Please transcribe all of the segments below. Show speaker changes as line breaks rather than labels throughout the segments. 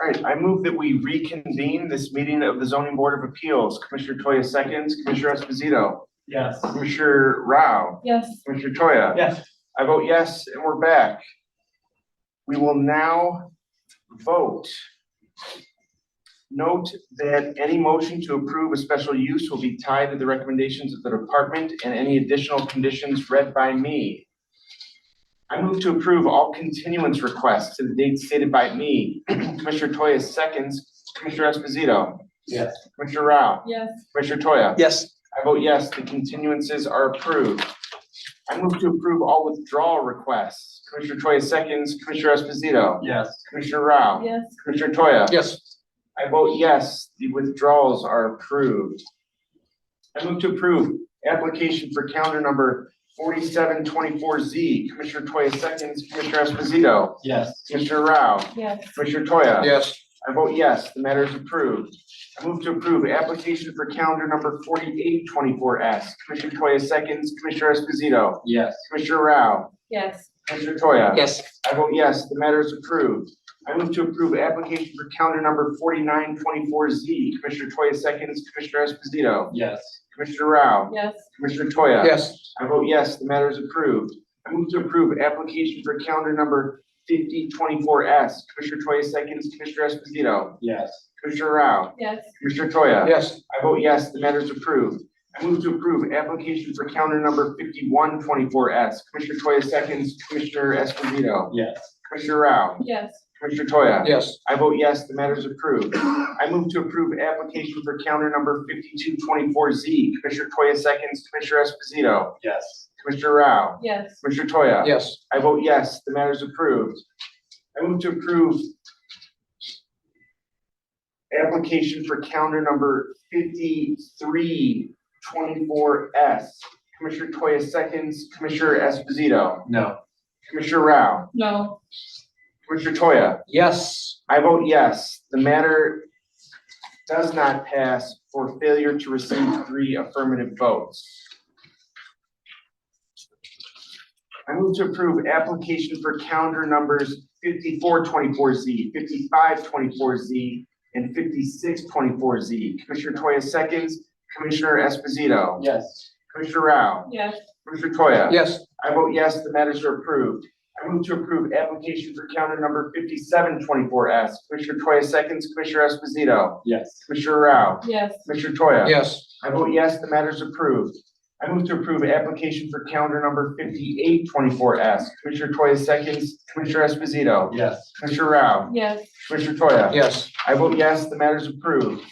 All right, I move that we reconvene this meeting of the zoning board of appeals. Commissioner Toya seconds, Commissioner Esposito,
Yes.
Commissioner Rao,
Yes.
Commissioner Toya.
Yes.
I vote yes, and we're back. We will now vote. Note that any motion to approve a special use will be tied to the recommendations of the department and any additional conditions read by me. I move to approve all continuance requests to the date stated by me. Commissioner Toya seconds, Commissioner Esposito.
Yes.
Commissioner Rao,
Yes.
Commissioner Toya.
Yes.
I vote yes, the continuances are approved. I move to approve all withdrawal requests. Commissioner Toya seconds, Commissioner Esposito,
Yes.
Commissioner Rao,
Yes.
Commissioner Toya.
Yes.
I vote yes, the withdrawals are approved. I move to approve application for calendar number forty-seven twenty-four Z. Commissioner Toya seconds, Commissioner Esposito,
Yes.
Commissioner Rao,
Yes.
Commissioner Toya.
Yes.
I vote yes, the matter is approved. I move to approve application for calendar number forty-eight twenty-four S. Commissioner Toya seconds, Commissioner Esposito,
Yes.
Commissioner Rao,
Yes.
Commissioner Toya.
Yes.
I vote yes, the matter is approved. I move to approve application for calendar number forty-nine twenty-four Z. Commissioner Toya seconds, Commissioner Esposito,
Yes.
Commissioner Rao,
Yes.
Commissioner Toya.
Yes.
I vote yes, the matter is approved. I move to approve application for calendar number fifty twenty-four S. Commissioner Toya seconds, Commissioner Esposito,
Yes.
Commissioner Rao,
Yes.
Commissioner Toya.
Yes.
I vote yes, the matter is approved. I move to approve application for counter number fifty-one twenty-four S. Commissioner Toya seconds, Commissioner Esposito,
Yes.
Commissioner Rao,
Yes.
Commissioner Toya.
Yes.
I vote yes, the matter is approved. I move to approve application for counter number fifty-two twenty-four Z. Commissioner Toya seconds, Commissioner Esposito,
Yes.
Commissioner Rao,
Yes.
Commissioner Toya.
Yes.
I vote yes, the matter is approved. I move to approve application for calendar number fifty-three twenty-four S. Commissioner Toya seconds, Commissioner Esposito,
No.
Commissioner Rao,
No.
Commissioner Toya.
Yes.
I vote yes, the matter does not pass for failure to receive three affirmative votes. I move to approve application for calendar numbers fifty-four twenty-four Z, fifty-five twenty-four Z, and fifty-six twenty-four Z. Commissioner Toya seconds, Commissioner Esposito,
Yes.
Commissioner Rao,
Yes.
Commissioner Toya.
Yes.
I vote yes, the matters are approved. I move to approve application for counter number fifty-seven twenty-four S. Commissioner Toya seconds, Commissioner Esposito,
Yes.
Commissioner Rao,
Yes.
Commissioner Toya.
Yes.
I vote yes, the matters approved. I move to approve application for counter number fifty-eight twenty-four S. Commissioner Toya seconds, Commissioner Esposito,
Yes.
Commissioner Rao,
Yes.
Commissioner Toya.
Yes.
I vote yes, the matter is approved.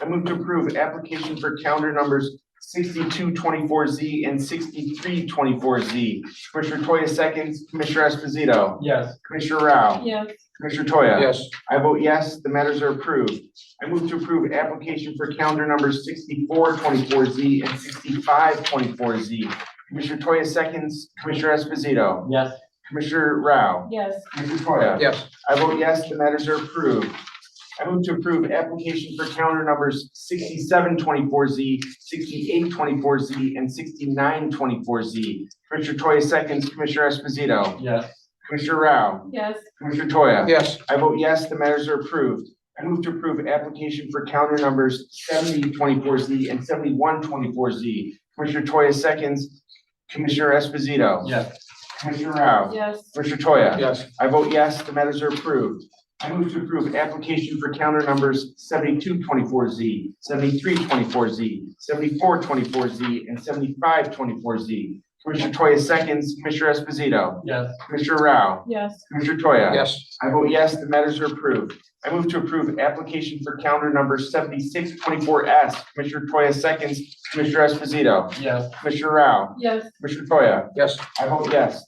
I move to approve application for calendar numbers sixty-two twenty-four Z and sixty-three twenty-four Z. Commissioner Toya seconds, Commissioner Esposito,
Yes.
Commissioner Rao,
Yes.
Commissioner Toya.
Yes.
I vote yes, the matters are approved. I move to approve application for calendar numbers sixty-four twenty-four Z and sixty-five twenty-four Z. Commissioner Toya seconds, Commissioner Esposito,
Yes.
Commissioner Rao,
Yes.
Commissioner Toya.
Yes.
I vote yes, the matters are approved. I move to approve application for calendar numbers sixty-seven twenty-four Z, sixty-eight twenty-four Z, and sixty-nine twenty-four Z. Commissioner Toya seconds, Commissioner Esposito,
Yes.
Commissioner Rao,
Yes.
Commissioner Toya.
Yes.
I vote yes, the matters are approved. I move to approve application for calendar numbers seventy twenty-four Z and seventy-one twenty-four Z. Commissioner Toya seconds, Commissioner Esposito,
Yes.
Commissioner Rao,
Yes.
Commissioner Toya.
Yes.
I vote yes, the matters are approved. I move to approve application for counter numbers seventy-two twenty-four Z, seventy-three twenty-four Z, seventy-four twenty-four Z, and seventy-five twenty-four Z. Commissioner Toya seconds, Commissioner Esposito,
Yes.
Commissioner Rao,
Yes.
Commissioner Toya.
Yes.
I vote yes, the matters are approved. I move to approve application for counter number seventy-six twenty-four S. Commissioner Toya seconds, Commissioner Esposito,
Yes.
Commissioner Rao,
Yes.
Commissioner Toya.
Yes.
I vote yes,